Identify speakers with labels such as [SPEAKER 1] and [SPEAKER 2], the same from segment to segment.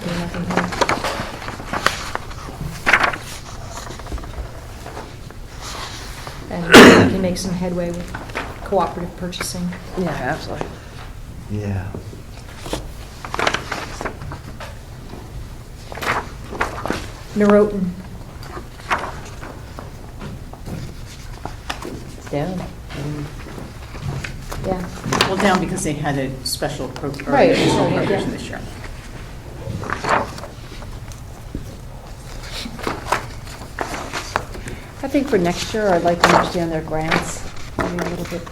[SPEAKER 1] There's nothing here. And we can make some headway with cooperative purchasing.
[SPEAKER 2] Yeah, absolutely.
[SPEAKER 3] Yeah.
[SPEAKER 1] Norotan,
[SPEAKER 2] It's down.
[SPEAKER 1] yeah.
[SPEAKER 4] Well, down because they had a special appropriation
[SPEAKER 2] Right.
[SPEAKER 4] appropriation this year.
[SPEAKER 2] I think for next year, I'd like to understand their grants, maybe a little bit.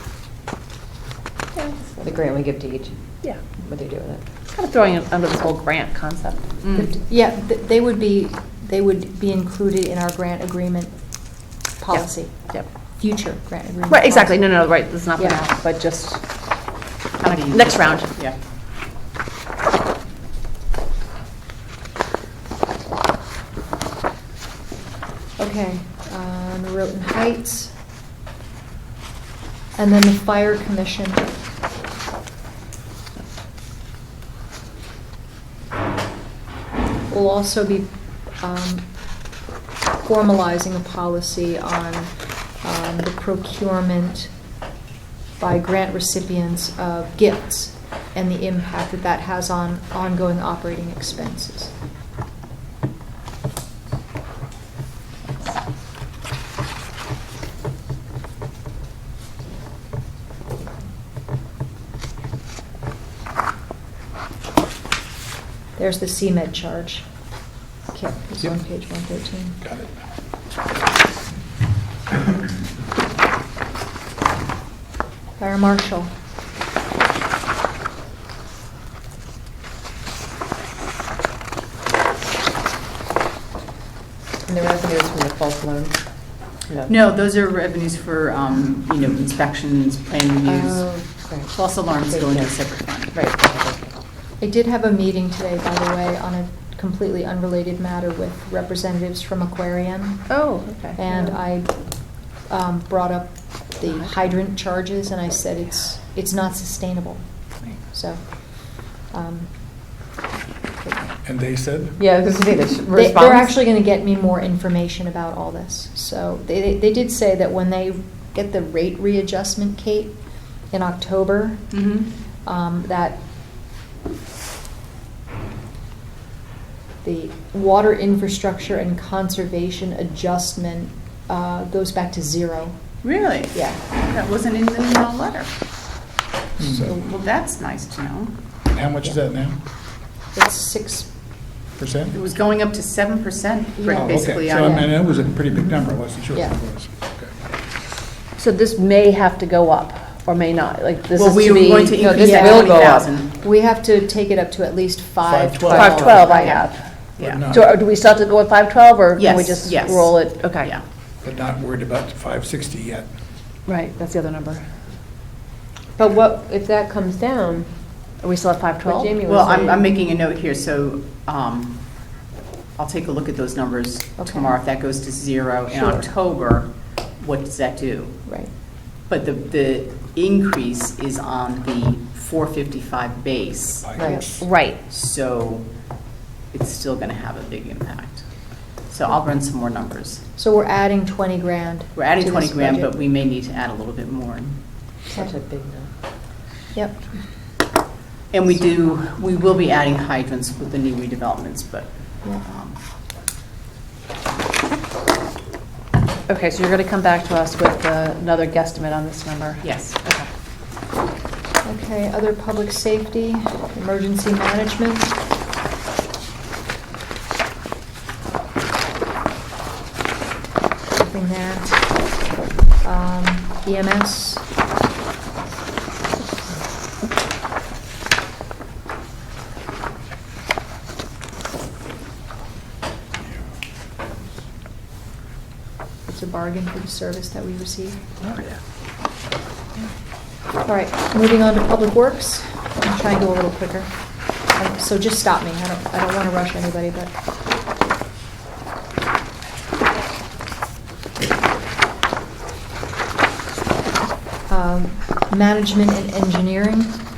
[SPEAKER 5] The grant we give to each,
[SPEAKER 2] Yeah,
[SPEAKER 5] what they do with it.
[SPEAKER 2] kind of throwing it under this whole grant concept.
[SPEAKER 4] Mm.
[SPEAKER 1] Yeah, th- they would be, they would be included in our grant agreement policy,
[SPEAKER 2] Yep.
[SPEAKER 1] future grant agreement.
[SPEAKER 2] Right, exactly, no,
[SPEAKER 1] policy.
[SPEAKER 2] no, right, it's not for
[SPEAKER 1] Yeah.
[SPEAKER 2] now, but just,
[SPEAKER 4] How do you-
[SPEAKER 2] next round.
[SPEAKER 4] Yeah.
[SPEAKER 1] Okay, uh, Norotan Heights. And then the fire commission. We'll also be um, formalizing a policy on um, the procurement by grant recipients of gifts and the impact that that has on ongoing operating expenses. There's the CMed charge. Kip, it's on page 113.
[SPEAKER 6] Got it.
[SPEAKER 1] Fire marshal.
[SPEAKER 5] And the revenue is from the false loan.
[SPEAKER 4] No, those are revenues for, um, you know, inspections, plan
[SPEAKER 5] Oh,
[SPEAKER 4] reviews.
[SPEAKER 5] correct.
[SPEAKER 4] False alarms go into a separate fund.
[SPEAKER 5] Right.
[SPEAKER 1] I did have a meeting today, by the way, on a completely unrelated matter with representatives from Aquarium.
[SPEAKER 2] Oh, okay.
[SPEAKER 1] And I um, brought up the hydrant charges and I said it's, it's not sustainable. So, um,
[SPEAKER 6] And they said?
[SPEAKER 5] Yeah, because they, the
[SPEAKER 1] They-
[SPEAKER 5] response.
[SPEAKER 1] They're actually going to get me more information about all this. So they, they, they did say that when they get the rate readjustment, Kate, in October,
[SPEAKER 4] Mm-hmm.
[SPEAKER 1] um, that the water infrastructure and conservation adjustment uh, goes back to zero.
[SPEAKER 4] Really?
[SPEAKER 1] Yeah.
[SPEAKER 4] That wasn't in the uh, letter.
[SPEAKER 6] So
[SPEAKER 4] Well, that's nice to know.
[SPEAKER 6] how much is that now?
[SPEAKER 1] It's six,
[SPEAKER 6] Percent?
[SPEAKER 4] It was going up to seven percent,
[SPEAKER 1] Yeah.
[SPEAKER 6] Oh, okay.
[SPEAKER 4] basically.
[SPEAKER 6] So
[SPEAKER 4] on-
[SPEAKER 6] I mean, it was a pretty big number, I wasn't sure what
[SPEAKER 1] Yeah.
[SPEAKER 6] it was. Okay.
[SPEAKER 2] So this may have to go up, or may not, like, this
[SPEAKER 4] Well,
[SPEAKER 2] is
[SPEAKER 4] we
[SPEAKER 2] to
[SPEAKER 4] were
[SPEAKER 2] be.
[SPEAKER 4] going to
[SPEAKER 5] no,
[SPEAKER 4] increase
[SPEAKER 5] this
[SPEAKER 4] that
[SPEAKER 5] will
[SPEAKER 4] twenty
[SPEAKER 5] go up.
[SPEAKER 4] thousand.
[SPEAKER 1] we have to take it up to at least five.
[SPEAKER 6] 512.
[SPEAKER 2] Five twelve I have.
[SPEAKER 4] Yeah.
[SPEAKER 6] But
[SPEAKER 2] So uh,
[SPEAKER 6] not,
[SPEAKER 2] do we still have to go with five twelve, or can we
[SPEAKER 4] Yes,
[SPEAKER 2] just
[SPEAKER 4] yes.
[SPEAKER 2] roll it? Okay.
[SPEAKER 4] Yeah.
[SPEAKER 6] but not worried about the 560 yet.
[SPEAKER 2] Right, that's the other number.
[SPEAKER 5] But what, if that comes down,
[SPEAKER 2] Are we still at five
[SPEAKER 5] what
[SPEAKER 2] twelve?
[SPEAKER 5] Jamie was
[SPEAKER 4] Well,
[SPEAKER 5] saying.
[SPEAKER 4] I'm, I'm making a note here, so, um, I'll take a look at those numbers
[SPEAKER 1] Okay.
[SPEAKER 4] tomorrow. If that goes to zero in
[SPEAKER 1] Sure.
[SPEAKER 4] October, what does that do?
[SPEAKER 1] Right.
[SPEAKER 4] But the, the increase is on the four fifty-five base,
[SPEAKER 6] Like,
[SPEAKER 5] Right.
[SPEAKER 2] Right.
[SPEAKER 4] so it's still gonna have a big impact. So I'll run some more numbers.
[SPEAKER 1] So we're adding 20 grand.
[SPEAKER 4] We're adding
[SPEAKER 1] to
[SPEAKER 4] twenty
[SPEAKER 1] this
[SPEAKER 4] grand,
[SPEAKER 1] budget.
[SPEAKER 4] but we may need to add a little bit more.
[SPEAKER 5] Such a big number.
[SPEAKER 1] Yep.
[SPEAKER 4] And we do, we will be adding hydrants with the new redevelopments, but,
[SPEAKER 1] Yeah.
[SPEAKER 4] um,
[SPEAKER 2] Okay, so you're going to come back to us with uh, another guesstimate on this number?
[SPEAKER 4] yes.
[SPEAKER 2] Okay.
[SPEAKER 1] Okay, other public safety, emergency management. Nothing there. Um, EMS. It's a bargain for the service that we receive. All right, moving on to Public Works. I'm trying to go a little quicker. Um, So just stop me. I don't, I don't want to rush anybody, but. Um, Management and engineering.